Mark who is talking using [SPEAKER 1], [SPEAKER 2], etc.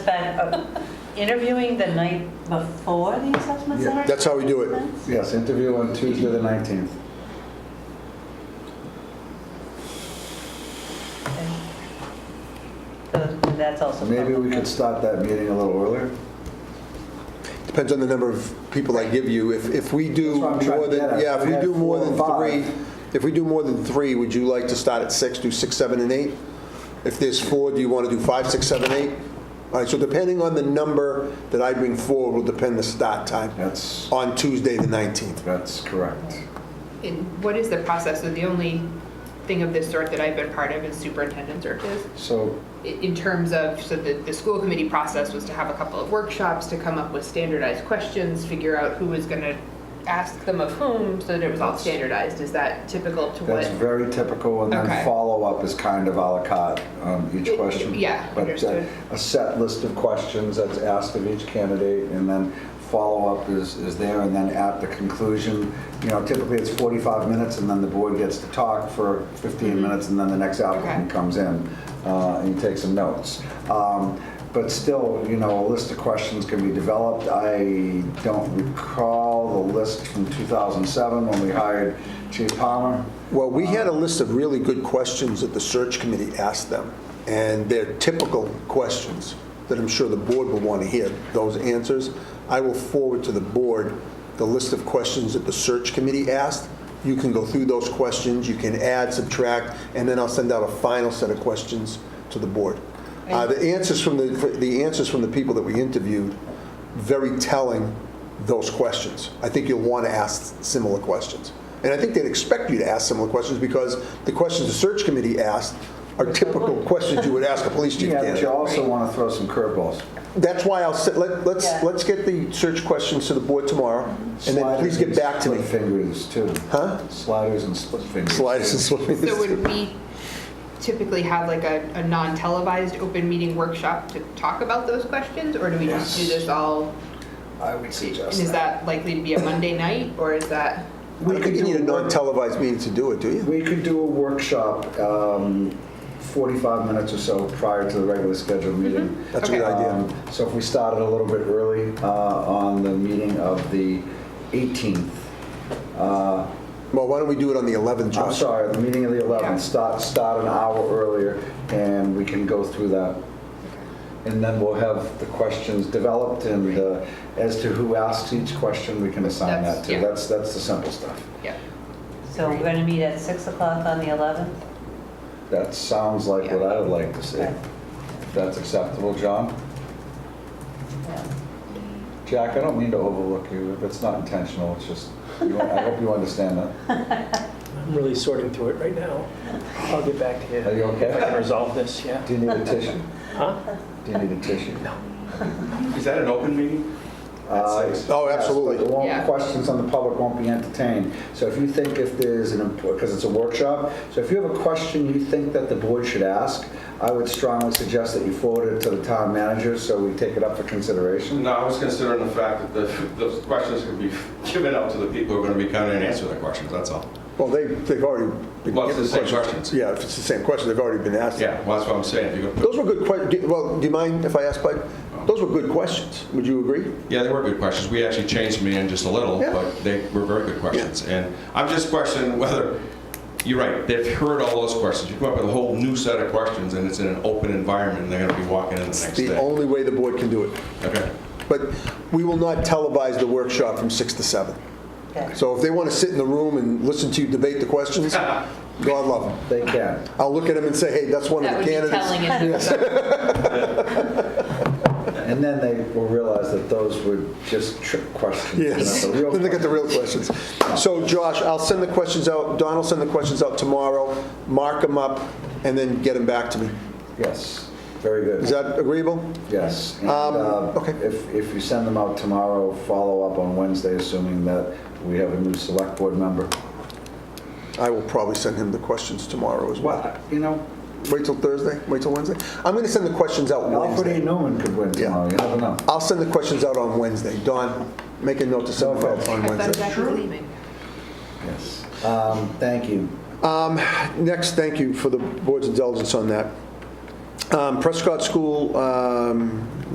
[SPEAKER 1] been uh, interviewing the night before the assessment
[SPEAKER 2] Yeah,
[SPEAKER 1] center?
[SPEAKER 3] that's how we do it.
[SPEAKER 2] Yes, interview on Tuesday, the 19th.
[SPEAKER 1] So That's also.
[SPEAKER 2] Maybe we
[SPEAKER 1] public,
[SPEAKER 2] could
[SPEAKER 1] yeah.
[SPEAKER 2] start that meeting a little earlier.
[SPEAKER 3] Depends on the number of people I give you. If, if we do
[SPEAKER 2] That's what I'm trying
[SPEAKER 3] more
[SPEAKER 2] to get
[SPEAKER 3] than,
[SPEAKER 2] at.
[SPEAKER 3] yeah,
[SPEAKER 2] If
[SPEAKER 3] if
[SPEAKER 2] we
[SPEAKER 3] we
[SPEAKER 2] had
[SPEAKER 3] do more
[SPEAKER 2] four
[SPEAKER 3] than
[SPEAKER 2] or
[SPEAKER 3] three, if we do more than three, would you like to start at six, do six, seven, and eight? If there's four, do you want to do five, six, seven, eight? All right, so depending on the number that I bring forward will depend the start time
[SPEAKER 2] That's,
[SPEAKER 3] on Tuesday, the 19th.
[SPEAKER 2] that's correct.
[SPEAKER 4] And what is the process? So the only thing of this sort that I've been part of is superintendent searches.
[SPEAKER 2] So
[SPEAKER 4] I- In terms of, so the, the school committee process was to have a couple of workshops to come up with standardized questions, figure out who was gonna ask them of whom, so that it was all standardized. Is that typical to
[SPEAKER 2] that's
[SPEAKER 4] what?
[SPEAKER 2] very typical, and
[SPEAKER 4] Okay.
[SPEAKER 2] then follow-up is kind of à la carte on each
[SPEAKER 4] It-
[SPEAKER 2] question.
[SPEAKER 4] yeah,
[SPEAKER 2] But uh,
[SPEAKER 4] understood.
[SPEAKER 2] a set list of questions that's asked of each candidate, and then follow-up is, is there, and then at the conclusion, you know, typically it's 45 minutes, and then the board gets to talk for 15 minutes, and then the next applicant
[SPEAKER 4] Mm-hmm. Okay.
[SPEAKER 2] comes in uh, and you take some notes. Um, But still, you know, a list of questions can be developed. I don't recall the list from 2007 when we hired Chief Palmer.
[SPEAKER 3] Well, we had a list of really good questions that the search committee asked them, and they're typical questions that I'm sure the board will want to hear those answers. I will forward to the board the list of questions that the search committee asked. You can go through those questions, you can add, subtract, and then I'll send out a final set of questions to the board. Uh, The answers from the, the answers from the people that we interviewed, very telling those questions. I think you'll want to ask similar questions. And I think they'd expect you to ask similar questions because the questions the search committee asked are typical questions you would ask a police chief
[SPEAKER 2] Yeah, but you
[SPEAKER 3] candidate.
[SPEAKER 2] also want to throw some curveballs.
[SPEAKER 3] That's why I'll, sit- let- let's,
[SPEAKER 1] Yeah.
[SPEAKER 3] let's get the search questions to the board tomorrow and then please get back to me.
[SPEAKER 2] Sliders and Split fingers, too.
[SPEAKER 3] Huh?
[SPEAKER 2] Sliders and split fingers.
[SPEAKER 3] Sliders and slip
[SPEAKER 4] So would we typically have like a, a non-televised open meeting workshop to talk about those questions? Or do we just do
[SPEAKER 2] Yes.
[SPEAKER 4] this all?
[SPEAKER 2] I would
[SPEAKER 4] And
[SPEAKER 2] suggest
[SPEAKER 4] is that likely to be a Monday night or is that?
[SPEAKER 3] I don't think you need a
[SPEAKER 2] do work-
[SPEAKER 3] non-televised meeting to do it, do you?
[SPEAKER 2] We could do a workshop, um, 45 minutes or so prior to the regular scheduled
[SPEAKER 4] Mm-hmm.
[SPEAKER 2] meeting.
[SPEAKER 3] That's a
[SPEAKER 4] Okay.
[SPEAKER 3] good idea.
[SPEAKER 2] Um, So if we started a little bit early uh, on the meeting of the 18th, uh,
[SPEAKER 3] Well, why don't we do it on the 11th,
[SPEAKER 2] I'm
[SPEAKER 3] Josh?
[SPEAKER 2] sorry, the meeting of the 11th,
[SPEAKER 4] Yeah.
[SPEAKER 2] start, start an hour earlier, and we can go through that. And then we'll have the questions developed, and uh, as to who asks each question, we can assign that
[SPEAKER 4] That's-
[SPEAKER 2] to.
[SPEAKER 4] yeah.
[SPEAKER 2] That's, that's the simple stuff.
[SPEAKER 4] Yeah.
[SPEAKER 1] So we're going to meet at 6 o'clock on the 11th?
[SPEAKER 2] That sounds like what I would like to see.
[SPEAKER 1] Okay.
[SPEAKER 2] If that's acceptable, John?
[SPEAKER 1] Yeah.
[SPEAKER 2] Jack, I don't mean to overlook you, it's not intentional, it's just, you- I hope you understand that.
[SPEAKER 5] I'm really sorting through it right now. I'll get back to you.
[SPEAKER 2] Are you
[SPEAKER 5] If I can
[SPEAKER 2] okay?
[SPEAKER 5] resolve this, yeah.
[SPEAKER 2] Do you need a tissue?
[SPEAKER 5] Huh?
[SPEAKER 2] Do you need a tissue?
[SPEAKER 6] Is that an open meeting?
[SPEAKER 2] Uh,
[SPEAKER 6] At six.
[SPEAKER 3] Oh,
[SPEAKER 2] yes,
[SPEAKER 3] absolutely.
[SPEAKER 2] but it won't-
[SPEAKER 4] Yeah.
[SPEAKER 2] Questions on the public won't be entertained. So if you think if there's an, because it's a workshop, so if you have a question you think that the board should ask, I would strongly suggest that you forward it to the town manager so we take it up for consideration.
[SPEAKER 6] No, I was considering the fact that the, those questions could be given out to the people who are going to be coming and answering the questions, that's all.
[SPEAKER 3] Well, they, they've already been
[SPEAKER 6] Well, it's
[SPEAKER 3] given
[SPEAKER 6] the same
[SPEAKER 3] questions.
[SPEAKER 6] questions.
[SPEAKER 3] Yeah, if it's the same question, they've already been asked.
[SPEAKER 6] Yeah, well, that's what I'm saying. If you're gonna put-
[SPEAKER 3] Those were good questions. Well, do you mind if I ask, Bud? Those were good questions. Would you agree?
[SPEAKER 6] Yeah, they were good questions. We actually changed them in just a little,
[SPEAKER 3] Yeah.
[SPEAKER 6] but they were very good questions. And I'm just questioning whether, you're right, they've heard all those questions. You come up with a whole new set of questions, and it's in an open environment, and they're going to be walking in the next
[SPEAKER 3] The
[SPEAKER 6] day.
[SPEAKER 3] only way the board can do it.
[SPEAKER 6] Okay.
[SPEAKER 3] But we will not televise the workshop from 6 to 7.
[SPEAKER 1] Okay.
[SPEAKER 3] So if they want to sit in the room and listen to you debate the questions, God love them.
[SPEAKER 2] They can.
[SPEAKER 3] I'll look at them and say, hey, that's one of the
[SPEAKER 4] That would be
[SPEAKER 3] candidates.
[SPEAKER 4] telling in itself.
[SPEAKER 2] And then they will realize that those were just trick questions.
[SPEAKER 3] Yes,
[SPEAKER 2] not the real
[SPEAKER 3] then they get the real questions. So Josh, I'll send the questions out, Don will send the questions out tomorrow, mark them up, and then get them back to me.
[SPEAKER 2] Yes, very good.
[SPEAKER 3] Is that agreeable?
[SPEAKER 2] Yes. and,
[SPEAKER 3] Um,
[SPEAKER 2] uh,
[SPEAKER 3] okay.
[SPEAKER 2] If, if you send them out tomorrow, follow up on Wednesday, assuming that we have a new select board member.
[SPEAKER 3] I will probably send him the questions tomorrow as well.
[SPEAKER 2] Well, you know,
[SPEAKER 3] Wait till Thursday, wait till Wednesday? I'm going to send the questions out
[SPEAKER 2] Alfred A.
[SPEAKER 3] Wednesday.
[SPEAKER 2] Newman could win
[SPEAKER 3] Yeah.
[SPEAKER 2] tomorrow, you never know.
[SPEAKER 3] I'll send the questions out on Wednesday. Don, make a note to send them out on
[SPEAKER 4] I thought
[SPEAKER 3] Wednesday.
[SPEAKER 4] Jack was leaving.
[SPEAKER 2] Yes. Um, Thank you.
[SPEAKER 3] Next, thank you for the board's indulgence on that. Um, Prescott School um,